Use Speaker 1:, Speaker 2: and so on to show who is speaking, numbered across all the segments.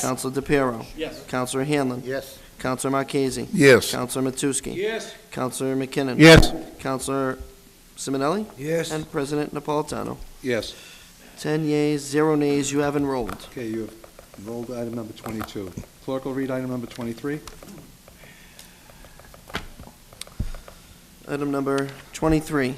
Speaker 1: Counselor DePiero.
Speaker 2: Yes.
Speaker 1: Counselor Hanlon.
Speaker 3: Yes.
Speaker 1: Counselor Marchese.
Speaker 3: Yes.
Speaker 1: Counselor Matusky.
Speaker 2: Yes.
Speaker 1: Counselor McKinnon.
Speaker 3: Yes.
Speaker 1: Counselor Simonelli.
Speaker 3: Yes.
Speaker 1: And President Napolitano.
Speaker 3: Yes.
Speaker 1: Ten yeas, zero nays, you have enrolled.
Speaker 4: Okay, you have rolled item number 22. Clerk will read item number 23.
Speaker 1: Item number 23,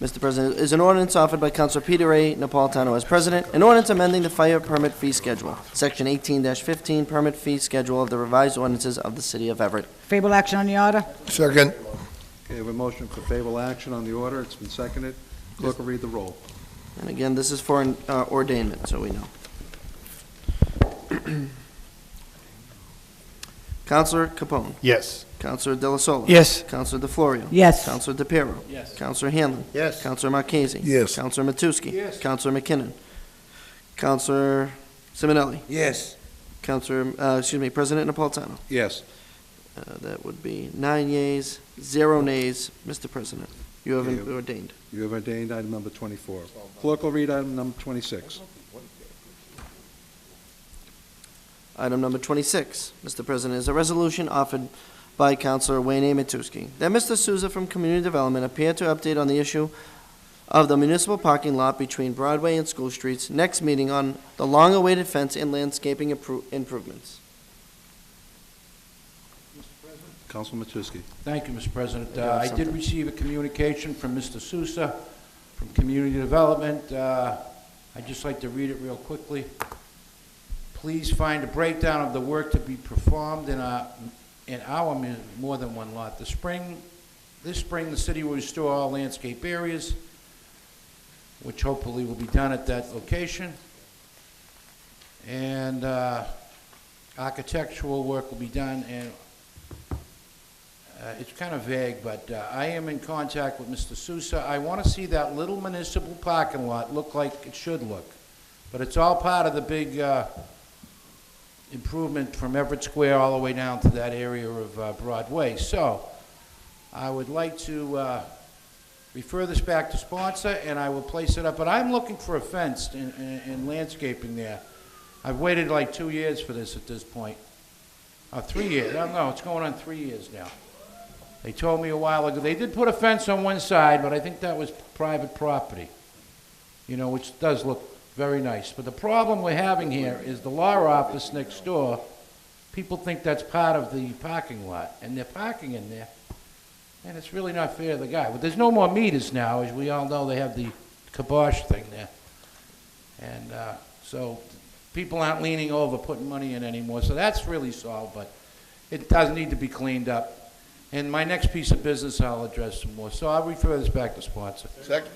Speaker 1: Mr. President, is an ordinance offered by Counselor Peter A. Napolitano as president, an ordinance amending the fire permit fee schedule, Section 18-15 Permit Fee Schedule of the revised ordinances of the City of Everett.
Speaker 5: Favorable action on the order?
Speaker 3: Second.
Speaker 4: Okay, I have a motion for favorable action on the order. It's been seconded. Clerk will read the roll.
Speaker 1: And again, this is for an uh, ordainment, so we know. Counselor Capone.
Speaker 3: Yes.
Speaker 1: Counselor De La Sola.
Speaker 3: Yes.
Speaker 1: Counselor DeFlorio.
Speaker 5: Yes.
Speaker 1: Counselor DePiero.
Speaker 2: Yes.
Speaker 1: Counselor Hanlon.
Speaker 3: Yes.
Speaker 1: Counselor Marchese.
Speaker 3: Yes.
Speaker 1: Counselor Matusky.
Speaker 2: Yes.
Speaker 1: Counselor McKinnon. Counselor Simonelli.
Speaker 3: Yes.
Speaker 1: Counselor, uh, excuse me, President Napolitano.
Speaker 4: Yes.
Speaker 1: Uh, That would be nine yeas, zero nays, Mr. President. You have been ordained.
Speaker 4: You have ordained item number 24. Clerk will read item number 26.
Speaker 1: Item number 26, Mr. President, is a resolution offered by Counselor Wayne A. Matusky that Mr. Souza from Community Development appear to update on the issue of the municipal parking lot between Broadway and School Streets, next meeting on the long-awaited fence and landscaping appro- improvements.
Speaker 4: Councilman Matusky.
Speaker 2: Thank you, Mr. President.
Speaker 1: You
Speaker 2: Uh,
Speaker 1: have
Speaker 2: I did
Speaker 1: something?
Speaker 2: receive a communication from Mr. Sousa from Community Development. Uh, I'd just like to read it real quickly. Please find a breakdown of the work to be performed in our, in our mu- more than one lot. The spring, this spring, the city will restore all landscape areas, which hopefully will be done at that location. And uh, architectural work will be done, and uh, It's kind of vague, but uh, I am in contact with Mr. Sousa. I want to see that little municipal parking lot look like it should look. But it's all part of the big uh, improvement from Everett Square all the way down to that area of uh, Broadway. So I would like to uh, refer this back to sponsor, and I will place it up. But I'm looking for a fence and- and and landscaping there. I've waited like two years for this at this point. Uh, Three years, I don't know, it's going on three years now. They told me a while ago, they did put a fence on one side, but I think that was private property, you know, which does look very nice. But the problem we're having here is the law office next door, people think that's part of the parking lot, and they're parking in there, and it's really not fair to the guy. But there's no more meters now, as we all know, they have the kibosh thing there. And uh, so people aren't leaning over, putting money in anymore, so that's really solved, but it does need to be cleaned up. And my next piece of business, I'll address some more. So I'll refer this back to sponsor.
Speaker 3: Second.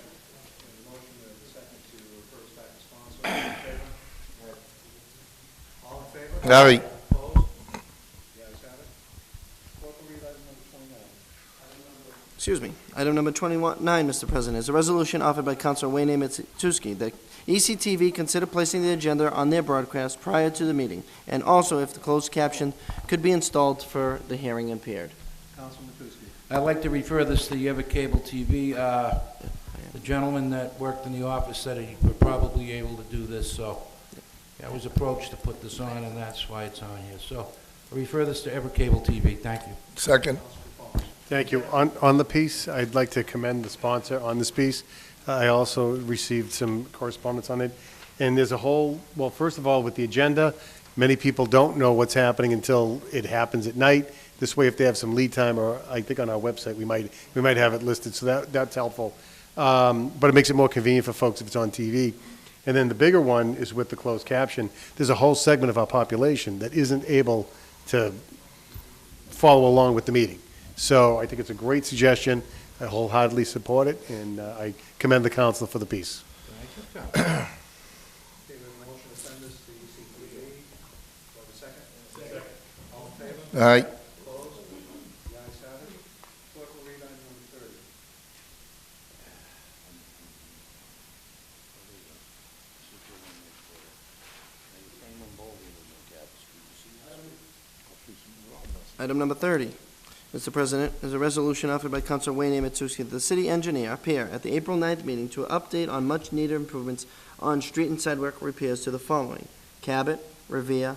Speaker 4: Motion and second to refer this back to sponsor. All in favor?
Speaker 3: Aye.
Speaker 4: Opposed? The ayes have it. Clerk will read item number 29.
Speaker 1: Excuse me. Item number 29, Mr. President, is a resolution offered by Counselor Wayne A. Matusky that E ECTV consider placing the agenda on their broadcast prior to the meeting, and also if the closed caption could be installed for the hearing impaired.
Speaker 4: Councilman Matusky.
Speaker 2: I'd like to refer this to the Ever Cable TV. Uh, The gentleman that worked in the office said he would probably be able to do this, so I was approached to put this on, and that's why it's on here. So I refer this to Ever Cable TV. Thank you.
Speaker 3: Second.
Speaker 6: Thank you. On, on the piece, I'd like to commend the sponsor on this piece. I also received some correspondence on it. And there's a whole, well, first of all, with the agenda, many people don't know what's happening until it happens at night. This way, if they have some lead time, or I think on our website, we might, we might have it listed, so that, that's helpful. Um, But it makes it more convenient for folks if it's on TV. And then the bigger one is with the closed caption. There's a whole segment of our population that isn't able to follow along with the meeting. So I think it's a great suggestion. I wholeheartedly support it, and uh, I commend the council for the piece.
Speaker 4: Okay, we have a motion to send this to ECTV. Do I have a second? Second. All in favor?
Speaker 3: Aye.
Speaker 4: Opposed? The ayes have it. Clerk will read item number thirty. uh,
Speaker 1: Item number 30, Mr. President, is a resolution offered by Counselor Wayne A. Matusky to the city engineer, appear at the April 9th meeting to update on much-needed improvements on street and sidewalk repairs to the following: Cabot, Revere,